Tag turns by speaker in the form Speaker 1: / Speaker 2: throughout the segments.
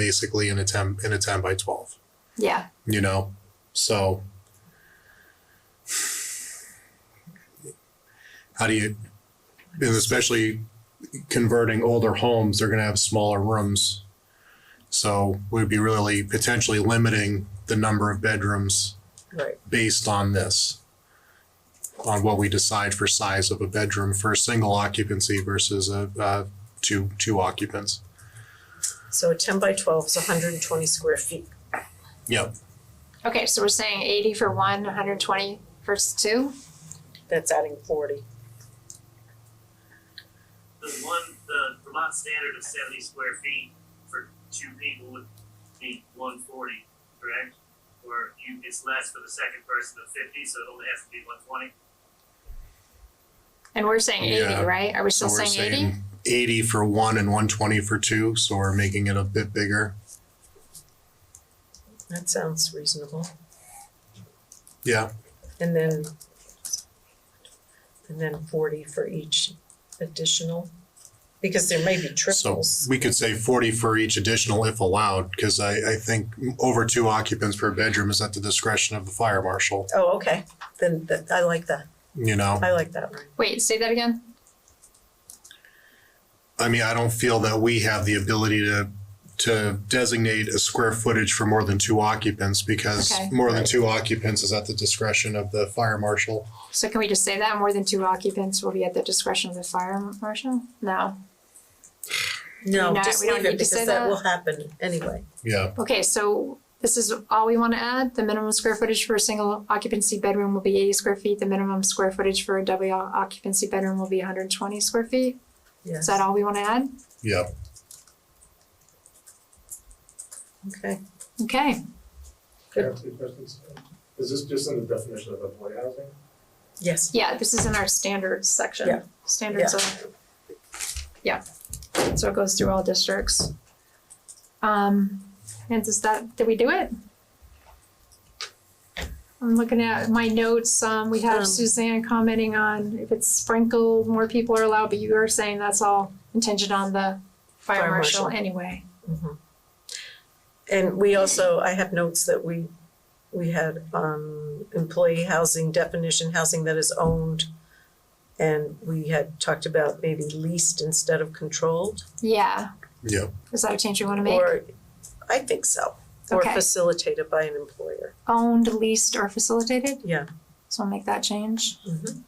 Speaker 1: basically in a 10 in a 10 by 12
Speaker 2: Yeah.
Speaker 1: you know so how do you and especially converting older homes they're going to have smaller rooms so we'd be really potentially limiting the number of bedrooms
Speaker 3: Right.
Speaker 1: based on this on what we decide for size of a bedroom for a single occupancy versus a uh, two two occupants
Speaker 3: So a ten by twelve is hundred and twenty square feet.
Speaker 1: yep
Speaker 2: Okay, so we're saying eighty for one, hundred and twenty for s- two?
Speaker 3: That's adding forty.
Speaker 4: the one, the Vermont standard of seventy square feet for two people would be one forty, correct? Or you, it's less for the second person of fifty, so it only has to be one twenty?
Speaker 2: And we're saying
Speaker 1: Yeah.
Speaker 2: eighty, right? Are we
Speaker 1: So
Speaker 2: still
Speaker 1: we're
Speaker 2: saying eighty?
Speaker 1: saying eighty for one and one twenty for two, so we're making it a bit bigger.
Speaker 3: That sounds reasonable.
Speaker 1: Yeah,
Speaker 3: And then and then forty for each additional, because there may be
Speaker 1: so
Speaker 3: triples.
Speaker 1: we could say forty for each additional if allowed, because I, I think over two occupants per bedroom is at the discretion of the fire marshal,
Speaker 3: Oh, okay, then that, I like that,
Speaker 1: you know?
Speaker 3: I like that, Ryan.
Speaker 2: Wait, say that again?
Speaker 1: I mean, I don't feel that we have the ability to, to designate a square footage for more than two occupants, because
Speaker 2: Okay.
Speaker 1: more than two occupants is at the discretion of the fire marshal.
Speaker 2: So can we just say that more than two occupants will be at the discretion of the fire marshal? No.
Speaker 3: No,
Speaker 2: not-
Speaker 3: just
Speaker 2: we don't
Speaker 3: leave
Speaker 2: need
Speaker 3: it
Speaker 2: to say
Speaker 3: because that
Speaker 2: that.
Speaker 3: will happen anyway.
Speaker 1: Yeah,
Speaker 2: Okay, so this is all we want to add. The minimum square footage for a single occupancy bedroom will be eighty square feet. The minimum square footage for a double occupancy bedroom will be hundred and twenty square feet. Is
Speaker 3: Yes,
Speaker 2: that all we want to add?
Speaker 1: yeah.
Speaker 3: okay,
Speaker 2: Okay,
Speaker 5: Can I have two questions? Is this just in the definition of employee housing?
Speaker 3: yes,
Speaker 2: yeah, this is in our standards section.
Speaker 3: Yeah.
Speaker 2: Standards of, yeah, so it goes through all districts. Um, and does that, did we do it? I'm looking at my notes, um, we have
Speaker 3: Um.
Speaker 2: Suzanne commenting on if it's sprinkled, more people are allowed, but you are saying that's all contingent on the fire
Speaker 3: Fire
Speaker 2: marshal
Speaker 3: marshal.
Speaker 2: anyway.
Speaker 3: Mm-hmm. and we also, I have notes that we, we had, um, employee housing definition, housing that is owned. And we had talked about maybe leased instead of controlled,
Speaker 2: Yeah,
Speaker 1: Yeah,
Speaker 2: is that a change you wanna make?
Speaker 3: or, I think so, or
Speaker 2: Okay.
Speaker 3: facilitated by an employer,
Speaker 2: Owned, leased, or facilitated,
Speaker 3: yeah.
Speaker 2: so I'll make that change.
Speaker 3: Mhm.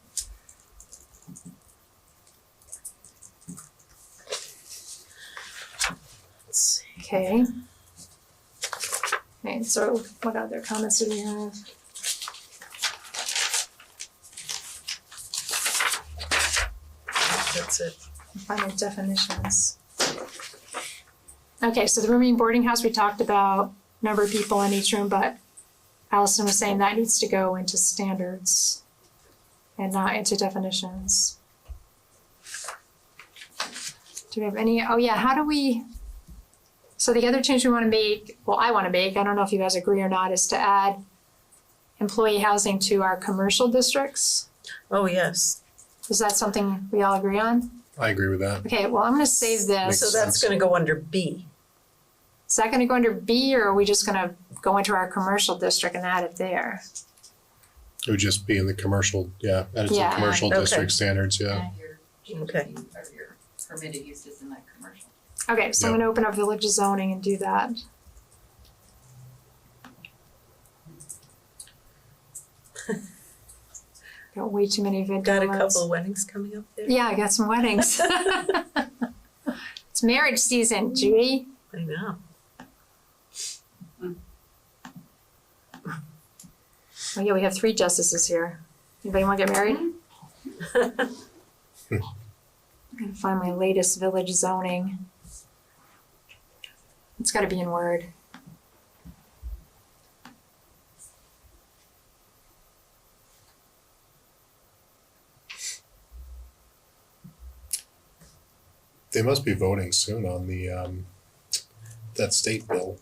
Speaker 3: Let's see.
Speaker 2: Okay. Okay, so what other comments do we have?
Speaker 3: That's it.
Speaker 2: Final definitions. Okay, so the rooming boarding house, we talked about number of people in each room, but Allison was saying that needs to go into standards and not into definitions. Do we have any, oh yeah, how do we, so the other change we wanna make, well, I wanna make, I don't know if you guys agree or not, is to add employee housing to our commercial districts.
Speaker 3: Oh, yes.
Speaker 2: Is that something we all agree on?
Speaker 1: I agree with that.
Speaker 2: Okay, well, I'm gonna save this.
Speaker 3: So that's gonna go under B.
Speaker 2: Is that gonna go under B or are we just gonna go into our commercial district and add it there?
Speaker 1: It would just be in the commercial, yeah, added to the
Speaker 2: Yeah.
Speaker 1: commercial
Speaker 3: Okay.
Speaker 1: district standards, yeah.
Speaker 6: And your
Speaker 3: Okay.
Speaker 6: GP or your permitted uses in that commercial.
Speaker 2: Okay, so I'm gonna open up village zoning and do that. Got way too many videos.
Speaker 3: Got a couple of weddings coming up there?
Speaker 2: Yeah, I got some weddings. It's marriage season, Judy.
Speaker 3: I know.
Speaker 2: Oh yeah, we have three justices here. Anybody wanna get married? I'm gonna find my latest village zoning. It's gotta be in Word.
Speaker 1: They must be voting soon on the, um, that state bill,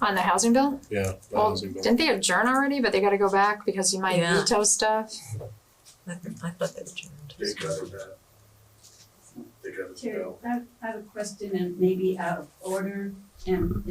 Speaker 2: On the housing bill?
Speaker 1: yeah. that
Speaker 2: Well,
Speaker 1: housing bill.
Speaker 2: didn't they adjourn already, but they gotta go back because you might
Speaker 3: Yeah.
Speaker 2: veto stuff?
Speaker 3: I I thought that adjourned.
Speaker 5: They got it, uh, They we have it
Speaker 7: Terry,
Speaker 5: now.
Speaker 7: I I have a question and maybe out of order and